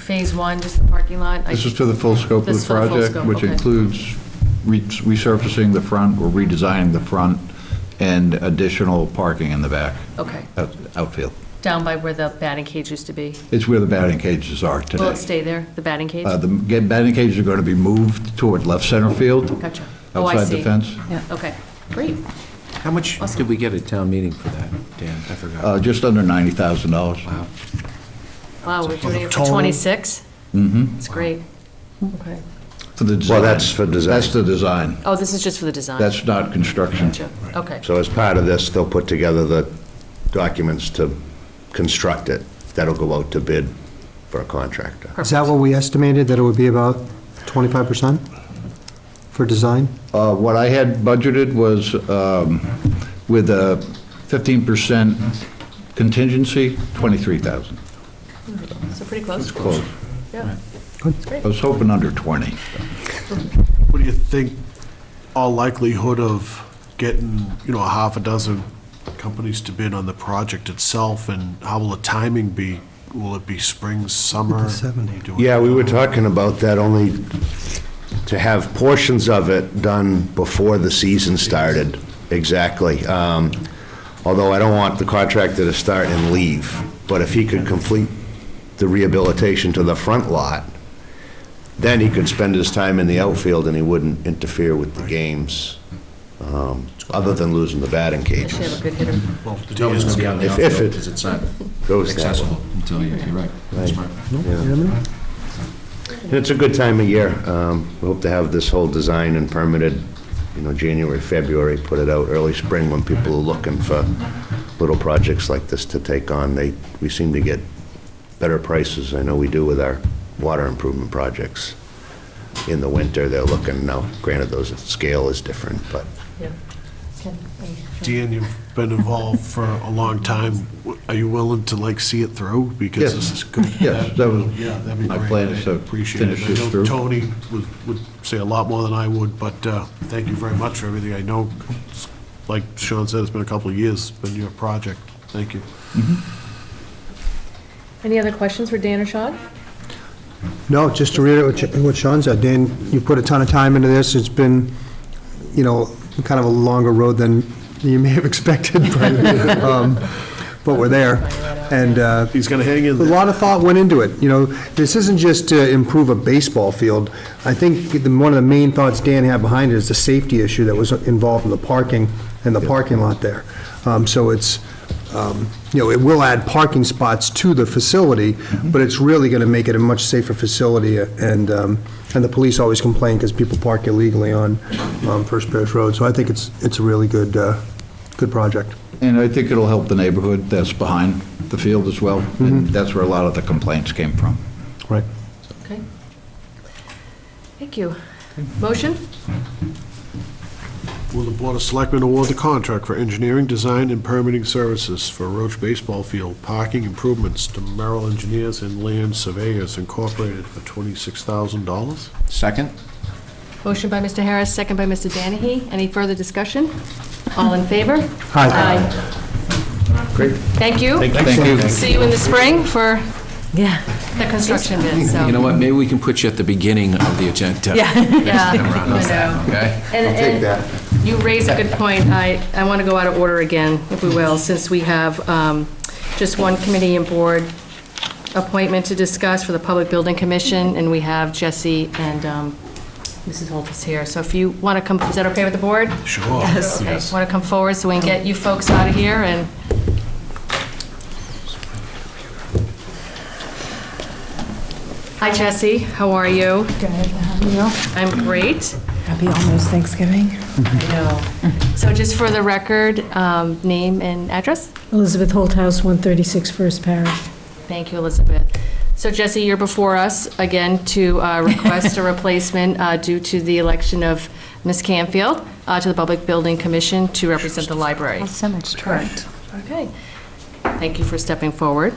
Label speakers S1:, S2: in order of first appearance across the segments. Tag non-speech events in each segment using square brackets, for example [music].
S1: phase one, just the parking lot? I-
S2: This is for the full scope of
S1: This
S2: the
S1: is for the full
S2: project,
S1: scope,
S2: which
S1: okay.
S2: includes re- resurfacing the front or redesigning the front and additional parking in the back,
S1: Okay,
S2: out- outfield.
S1: down by where the batting cage used to be.
S2: It's where the batting cages are
S1: Will
S2: today.
S1: it stay there, the batting cage?
S2: Uh, The ga- batting cages are going to be moved toward left center field.
S1: Gotcha. Oh, I
S2: Outside the
S1: see.
S2: fence.
S1: Yeah, okay, great.
S3: How much did we get at town meeting for that, Dan? I forgot.
S2: Uh, Just under $90,000.
S3: Wow.
S1: Wow, we're doing it for
S4: Total.
S1: 26? Mm-hmm. It's great. Okay.
S2: For the
S5: Well, that's for design.
S2: That's the design.
S1: Oh, this is just for the design?
S2: That's not construction.
S1: Gotcha. Okay,
S5: So as part of this, they'll put together the documents to construct it. That'll go out to bid for a contractor.
S4: Is that what we estimated, that it would be about 25% for design?
S2: Uh, What I had budgeted was um, with a 15% contingency, 23,000.
S1: so pretty close.
S2: Close.
S1: Yeah.
S2: I was hoping under 20.
S6: What do you think all likelihood of getting, you know, a half a dozen companies to bid on the project itself, and how will the timing be? Will it be spring, summer?
S4: 70.
S6: Do it-
S5: Yeah, we were talking about that, only to have portions of it done before the season started, exactly. Um, Although I don't want the contractor to start and leave, but if he could complete the rehabilitation to the front lot, then he could spend his time in the outfield and he wouldn't interfere with the games, um, other than losing the batting
S1: I should have
S5: cages.
S1: a good hitter.
S3: Well, the deal is going to be on the
S5: If- if
S3: outfield
S5: it
S3: because it's not
S5: Goes that way.
S3: accessible until, you- you're right. Smart.
S5: It's a good time of year. Um, We hope to have this whole design and permitted, you know, January, February, put it out early spring when people are looking for little projects like this to take on. They, we seem to get better prices, I know we do with our water improvement projects. In the winter, they're looking, now granted, those, scale is different, but
S1: Yeah.
S6: Dan, you've been involved for a long time. Are you willing to like see it through? Because
S2: Yes.
S6: this is good.
S2: Yes, that was
S6: Yeah, that'd be
S2: my
S6: great.
S2: plan is to
S6: I Appreciate it.
S2: finish
S6: I
S2: this
S6: know
S2: through.
S6: Tony would, would say a lot more than I would, but uh, thank you very much for everything. I know, like Sean said, it's been a couple of years, it's been your project. Thank you.
S1: Any other questions for Dan or Sean?
S4: No, just to reiterate what Sh- what Sean said, Dan, you put a ton of time into this, it's been, you know, kind of a longer road than you may have [laughs] expected, but, um, but we're there. And, uh,
S6: He's going to hang in
S4: A
S6: there.
S4: lot of thought went into it, you know, this isn't just to improve a baseball field. I think the, one of the main thoughts Dan had behind it is the safety issue that was involved in the parking and the parking lot there. Um, so it's, um, you know, it will add parking spots to the facility, but it's really gonna make it a much safer facility, and, um, and the police always complain because people park illegally on, um, First Parish Road, so I think it's, it's a really good, uh, good project.
S2: And I think it'll help the neighborhood that's behind the field as well. And that's where a lot of the complaints came from.
S4: Right.
S1: Okay. Thank you. Motion?
S6: Will the Board of Selectmen award the contract for engineering, design, and permitting services for Roach Baseball Field parking improvements to Merrill Engineers and Land Surveyors Incorporated for $26,000?
S3: Second?
S1: Motion by Mr. Harris, second by Mr. Danahy. Any further discussion? All in favor?
S4: Aye.
S1: Great. Thank you.
S2: Thank you.
S1: See you in the spring for the construction bid, so.
S3: [laughs] You know what, maybe we can put you at the beginning of the agenda.
S1: Yeah, I know.
S3: Okay?
S1: And-
S5: take
S1: and
S5: that.
S1: You raise a good point. I, I want to go out of order again, if we will, since we have um, just one committee and board appointment to discuss for the Public Building Commission, and we have Jesse and um, Mrs. Holtis here. So if you want to come, is that okay with the board?
S6: Sure.
S1: Yes. Want to come forward so we can get you folks out of here and... Hi, Jesse. How are you?
S7: Good, how are you?
S1: I'm great.
S7: Happy almost Thanksgiving.
S1: No. So just for the record, um, name and address?
S7: Elizabeth Holthouse, 136 First Parish.
S1: Thank you, Elizabeth. So Jesse, you're before us again to [laughs] uh, request a replacement uh, due to the election of Ms. Canfield uh, to the Public Building Commission to represent the library.
S7: So much correct.
S1: Okay. Thank you for stepping [laughs] forward.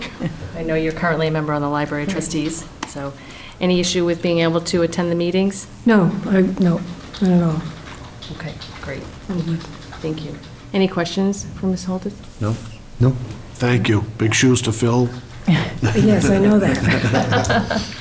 S1: I know you're currently a member on the library trustees, so any issue with being able to attend the meetings?
S7: No, I, no, not at all.
S1: Okay, great. Mm-hmm. Thank you. Any questions for Ms. Holden?
S3: No?
S4: No?
S6: Thank you. Big shoes to fill.
S7: Yes, I know that.